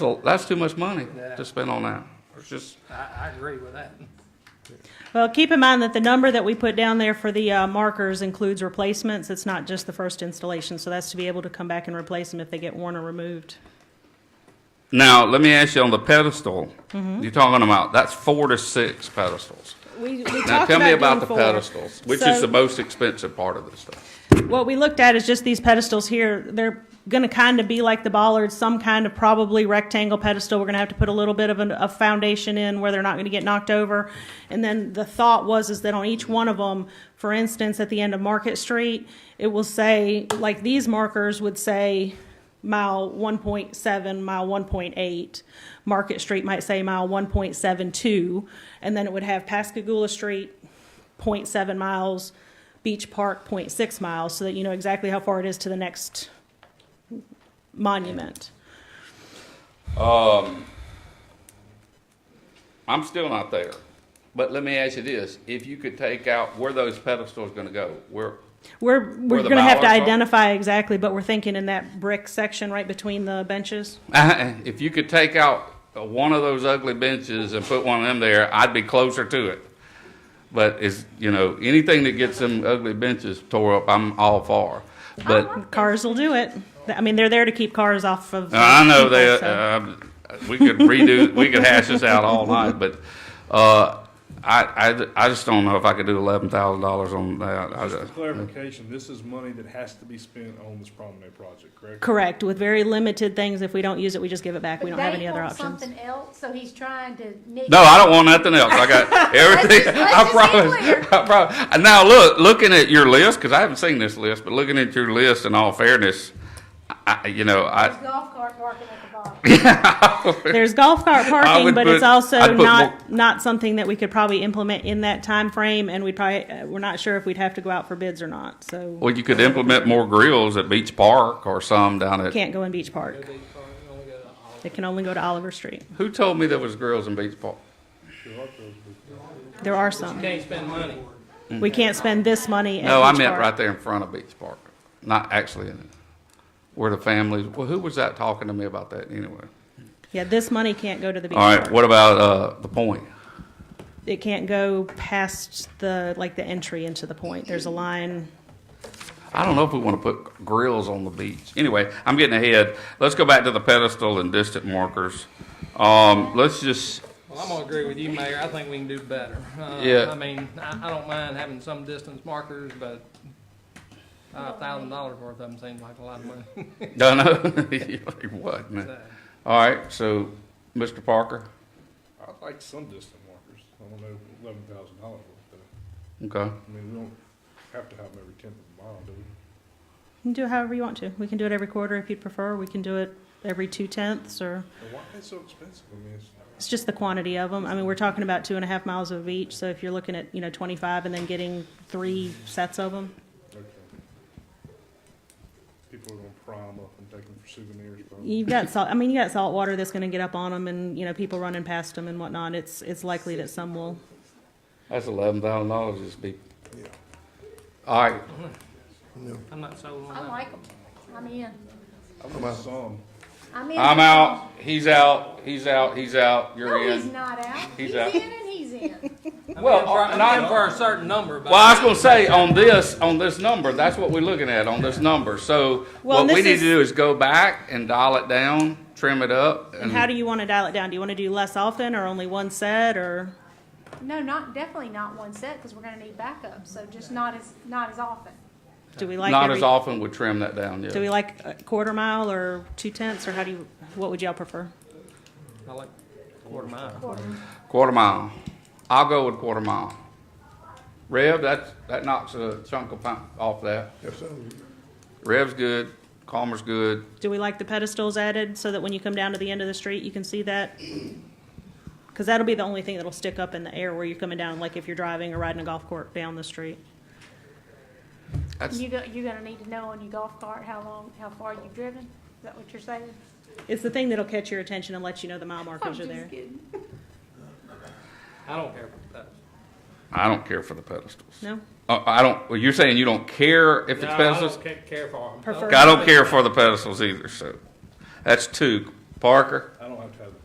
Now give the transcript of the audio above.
Well, that's too much money to spend on that. It's just, I, I agree with that. Well, keep in mind that the number that we put down there for the uh, markers includes replacements. It's not just the first installation, so that's to be able to come back and replace them if they get worn or removed. now, let me ask you on the pedestal, Mm-hmm. you're talking about, that's four to six pedestals. We, we talked Now, tell me about the doing four. pedestals, which So- is the most expensive part of this stuff. What we looked at is just these pedestals here. They're going to kind of be like the bollards, some kind of probably rectangle pedestal. We're going to have to put a little bit of an- a foundation in where they're not going to get knocked over. And then the thought was is that on each one of them, for instance, at the end of Market Street, it will say, like these markers would say mile 1.7, mile 1.8. Market Street might say mile 1.72. And then it would have Pascagoula Street, 0.7 miles, Beach Park 0.6 miles, so that you know exactly how far it is to the next monument. I'm still not there, but let me ask you this, if you could take out, where those pedestals gonna go? Where, We're, we're the gonna have to bollards are? identify exactly, but we're thinking in that brick section right between the benches. if you could take out uh, one of those ugly benches and put one of them there, I'd be closer to it. But is, you know, anything that gets them ugly benches tore up, I'm all for. But Cars will do it. I mean, they're there to keep cars off of. Uh, I know people, that, so- uh, we could redo, we could hash this out all night, but, uh, I, I, I just don't know if I could do eleven thousand dollars on that. I Just for just- clarification, this is money that has to be spent on this promenade project, correct? Correct, with very limited things. If we don't use it, we just give it back. But We don't have any they other want options. Something else, so he's trying to. nitpick. No, I don't want nothing else. I got everything. Let's I just- let's just promise. be I promise. And Now, look, looking at your list, because I haven't seen this list, but looking at your list in all fairness, I, you know, His I, golf cart parking at the bottom. There's golf cart would parking, but it's put- also I'd put not, not something that we could probably implement in that time frame, and we'd probably, uh, we're not sure if we'd have to go out for bids or not, so well, you could implement more grills at Beach Park or some down at, can't go in Beach Park. It can only go to Oliver Street. who told me there was grills in Beach Park? There are some. Can't spend money. We can't spend this money at No, I Beach meant Park. right there in front of Beach Park, not actually in it. Where the families, well, who was that talking to me about that anyway? Yeah, this money can't go to the beach All right, park. what about, uh, the point? It can't go past the, like, the entry into the point. There's a line. I don't know if we want to put grills on the beach. Anyway, I'm getting ahead. Let's go back to the pedestal and distant markers. Um, let's just, Well, I'm gonna agree with you, Mayor. I think we can do better. Uh, Yeah. I mean, I, I don't mind having some distance markers, but a thousand dollars worth of them seems like a lot of money. no, no, You're like, what, man? So, All right, so, Mr. Parker, I'd like some distant markers. I don't know, eleven thousand dollars worth, but, okay. I mean, we don't have to have them every tenth of a mile, do we? You can do it however you want to. We can do it every quarter if you'd prefer. We can do it every two tenths or. And why is it so expensive? I mean, it's, It's just the quantity of them. I mean, we're talking about two and a half miles of each, so if you're looking at, you know, twenty-five and then getting three sets of them, okay. People are gonna pry them up and take them for souvenirs, probably. you've got salt, I mean, you got salt water that's gonna get up on them and, you know, people running past them and whatnot. It's, it's likely that some will. That's eleven thousand dollars just be. Yeah. All right, I'm not sold on I that. like them. I'm in. I want some. I'm in. I'm out, he's out, he's out, he's out, No, you're he's in. not out. He's He's in out. and he's in. I'm Well, uh, in for- I'm not- in for a certain number, but. Well, I was gonna say, on this, on this number, that's what we're looking at, on this number. So Well, what this we need to is- do is go back and dial it down, trim it up. And how do you wanna dial it down? Do you wanna do less often or only one set or? No, not, definitely not one set, because we're gonna need backup, so just not as, not as often. Do we like Not every, as often would trim that down, yeah. do we like a quarter mile or two tenths or how do you, what would y'all prefer? I like quarter mile. Quarter mile. I'll go with quarter mile. Rev, that, that knocks a chunk of pound off that. Rev's good, Calmer's good. Do we like the pedestals added so that when you come down to the end of the street, you can see that? Because that'll be the only thing that'll stick up in the air where you're coming down, like if you're driving or riding a golf court down the street. That's, You go, you're gonna need to know on your golf cart how long, how far you've driven? Is that what you're saying? It's the thing that'll catch your attention and let you know the mile I'm markers are just there. kidding. I don't care about that. I don't care for the pedestals. No? Uh, I don't, well, you're saying you don't care if it's No, I pedestals? don't ca- Care for them. Prefer- I don't care for the pedestals either, so. That's two. Parker?